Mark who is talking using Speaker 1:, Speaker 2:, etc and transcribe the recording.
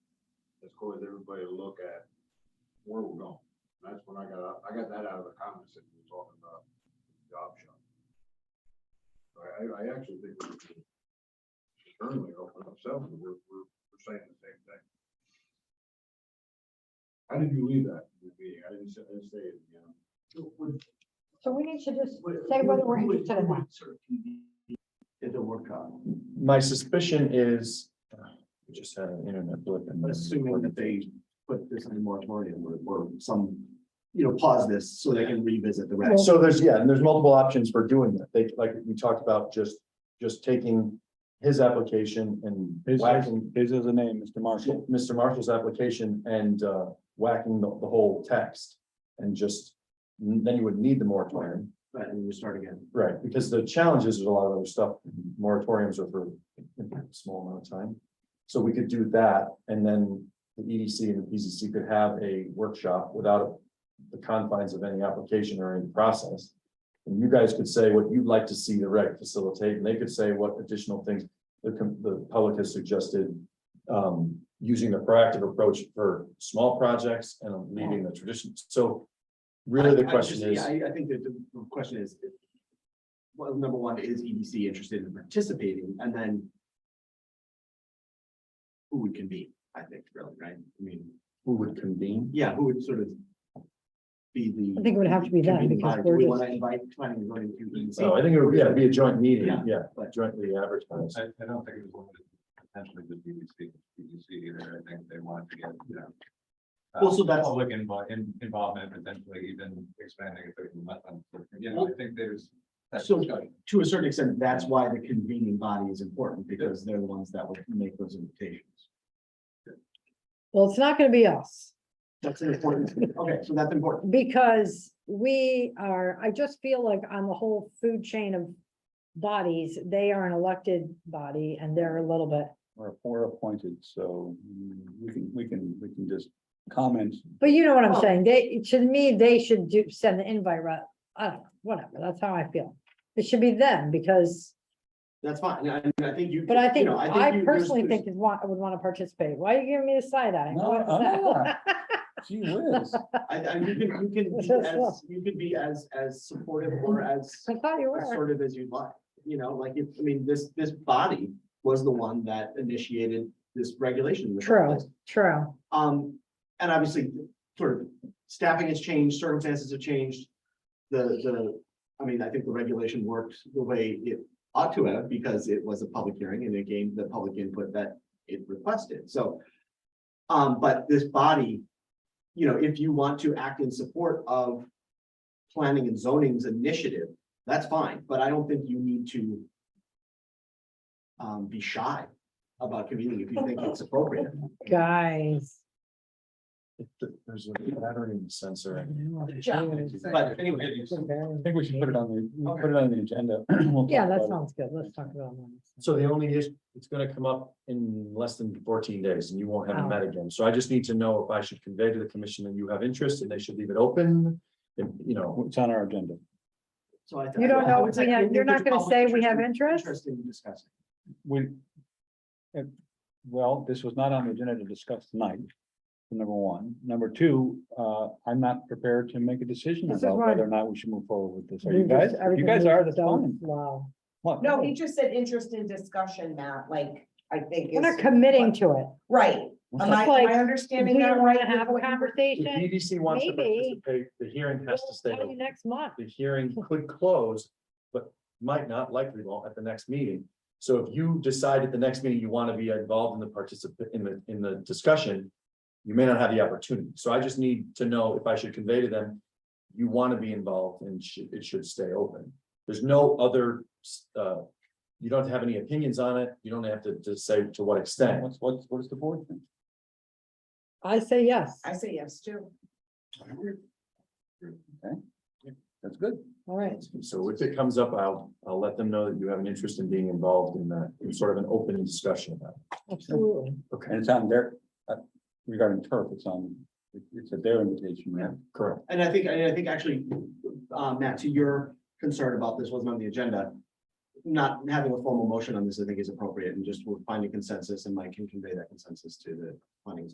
Speaker 1: as quick as everybody to look at where we're going. And That's when I got, out- I got that out of the comments that you were talking about, job shop. So I, I- I actually think we should certainly open ourselves, we're, we're, we're saying the same thing. How did you leave that in the meeting? I didn't say, I didn't say it again.
Speaker 2: So we need to just say whether we're interested in that.
Speaker 3: It's a workshop,
Speaker 4: My suspicion is, uh, we just had an internet blip and.
Speaker 3: assuming that they put this in the moratorium or, or some, you know, pause this so they can revisit the rest.
Speaker 4: So there's, yeah, and there's multiple options for doing that. They, like we talked about, just, just taking his application and
Speaker 5: His-
Speaker 4: whacking
Speaker 5: His is the name, Mr. Marshall.
Speaker 4: Mr. Marshall's application and uh, whacking the, the whole text. And just, then you would need the moratorium.
Speaker 3: Right, and we start again.
Speaker 4: Right, because the challenge is there's a lot of other stuff, moratoriums are for a small amount of time. So we could do that, and then the EDC and the PCC could have a workshop without the confines of any application or any process. And you guys could say what you'd like to see the rec facilitate, and they could say what additional things the, com- the public has suggested. Um, using the proactive approach for small projects and leaving the tradition, so really the
Speaker 3: I- I
Speaker 4: question
Speaker 3: just-
Speaker 4: is.
Speaker 3: yeah, I, I think that the the question is. Well, number one, is EDC interested in participating? And then. Who would convene, I think, really, right? I mean,
Speaker 4: Who would convene?
Speaker 3: yeah, who would sort of. Be the.
Speaker 2: I think it would have to be that
Speaker 3: convening
Speaker 2: because
Speaker 3: body? Do
Speaker 2: we're
Speaker 3: we want
Speaker 2: just,
Speaker 3: to invite planning and zoning to E EDC?
Speaker 4: So I think it would, yeah, be a joint meeting,
Speaker 3: Yeah.
Speaker 4: yeah, jointly advertised.
Speaker 6: I, I don't think it was one that potentially the BBC, BBC either. I think they wanted to get, you know. uh,
Speaker 3: Well, so that's-
Speaker 6: Public invo- in- involvement, potentially even expanding if they can let them. Yeah, I
Speaker 3: Well-
Speaker 6: think there's. that's
Speaker 3: So-
Speaker 6: discussion.
Speaker 3: To a certain extent, that's why the convening body is important because they're the ones that would make those invitations.
Speaker 2: well, it's not gonna be us,
Speaker 3: That's an important, okay, so that's important.
Speaker 2: because we are, I just feel like on the whole food chain of bodies, they are an elected body and they're a little bit,
Speaker 5: We're, we're appointed, so mm, we can, we can, we can just comment.
Speaker 2: but you know what I'm
Speaker 3: Well-
Speaker 2: saying? They, to me, they should do, send the invite, ra- I don't know, whatever, that's how I feel. It should be them because,
Speaker 3: That's fine. I, I think you.
Speaker 2: but I think,
Speaker 3: you know,
Speaker 2: I
Speaker 3: you- there's-
Speaker 2: personally
Speaker 3: there's-
Speaker 2: think is want, would want to participate. Why are you giving me the side eye?
Speaker 5: No,
Speaker 2: What's
Speaker 5: I'm
Speaker 2: that?
Speaker 5: not. Gee whiz.
Speaker 3: I, I, you can, you can, be as- you can be as, as supportive or as
Speaker 2: I thought you were.
Speaker 3: assertive as you'd like. You know, like, if, I mean, this, this body was the one that initiated this regulation. in the first
Speaker 2: True,
Speaker 3: place.
Speaker 2: true.
Speaker 3: Um, and obviously, sort of staffing has changed, circumstances have changed. The, the, I mean, I think the regulation worked the way it ought to have because it was a public hearing and it gained the public input that it requested, so. Um, but this body, you know, if you want to act in support of planning and zoning's initiative, that's fine, but I don't think you need to um, be shy about convening if you think it's appropriate.
Speaker 2: Guys.
Speaker 4: There's a battery in the sensor.
Speaker 3: But anyway,
Speaker 5: I think we should put it on the, we'll put it on the agenda.
Speaker 2: Yeah, that sounds good. Let's talk about that.
Speaker 4: So the only issue, it's gonna come up in less than fourteen days and you won't have
Speaker 5: Oh.
Speaker 4: it met again. So I just need to know if I should convey to the commission that you have interest and they should leave it open. If, you know,
Speaker 5: It's on our agenda.
Speaker 3: So I.
Speaker 2: You don't
Speaker 3: I
Speaker 2: know,
Speaker 3: would
Speaker 2: if
Speaker 3: say
Speaker 2: we have-
Speaker 3: if
Speaker 2: you're not
Speaker 3: there's
Speaker 2: gonna
Speaker 3: public
Speaker 2: say we have
Speaker 3: in-
Speaker 2: interest?
Speaker 3: Interest in discussing.
Speaker 5: We. uh, Well, this was not on the agenda to discuss tonight, number one. Number two, uh, I'm not prepared to make a decision
Speaker 2: This is
Speaker 5: about
Speaker 2: why-
Speaker 5: whether or not we should move forward with this. Are
Speaker 2: We
Speaker 5: you guys,
Speaker 2: just-
Speaker 5: you
Speaker 2: everything
Speaker 5: guys
Speaker 2: we
Speaker 5: are, that's
Speaker 2: don't-
Speaker 5: fine.
Speaker 2: Wow.
Speaker 5: What?
Speaker 7: No, he just said interest in discussion, Matt, like, I think.
Speaker 2: We're not
Speaker 7: is-
Speaker 2: committing to it.
Speaker 7: Right. Am I,
Speaker 2: Just
Speaker 7: am
Speaker 2: like,
Speaker 7: I understanding
Speaker 2: We
Speaker 7: that
Speaker 2: don't want
Speaker 7: right?
Speaker 2: to have a
Speaker 7: with what you were-
Speaker 4: if
Speaker 2: conversation.
Speaker 4: EDC wants to
Speaker 2: Maybe.
Speaker 4: participate, the hearing has to stay
Speaker 2: Tell you
Speaker 4: open.
Speaker 2: Next month.
Speaker 4: The hearing could close, but might not likely won't at the next meeting. So if you decide at the next meeting you want to be involved in the participant, in the, in the discussion. You may not have the opportunity. So I just need to know if I should convey to them. You want to be involved and should, it should stay open. There's no other, uh. You don't have any opinions on it. You don't have to, to say to what extent.
Speaker 5: What's, what's, what is the board think?
Speaker 2: I say yes.
Speaker 7: I say yes too.
Speaker 5: That's good.
Speaker 2: All right.
Speaker 4: So if it comes up, I'll, I'll let them know that you have an interest in being involved in that, in sort of an open discussion about it.
Speaker 2: Absolutely.
Speaker 5: And it's on their, uh, regarding turf, it's on, it- it's at their invitation, right?
Speaker 4: Correct.
Speaker 3: And I think, and I think actually, uh, Matt, to your concern about this wasn't on the agenda. Not having a formal motion on this, I think is appropriate and just we'll find a consensus and Mike can convey that consensus to the planning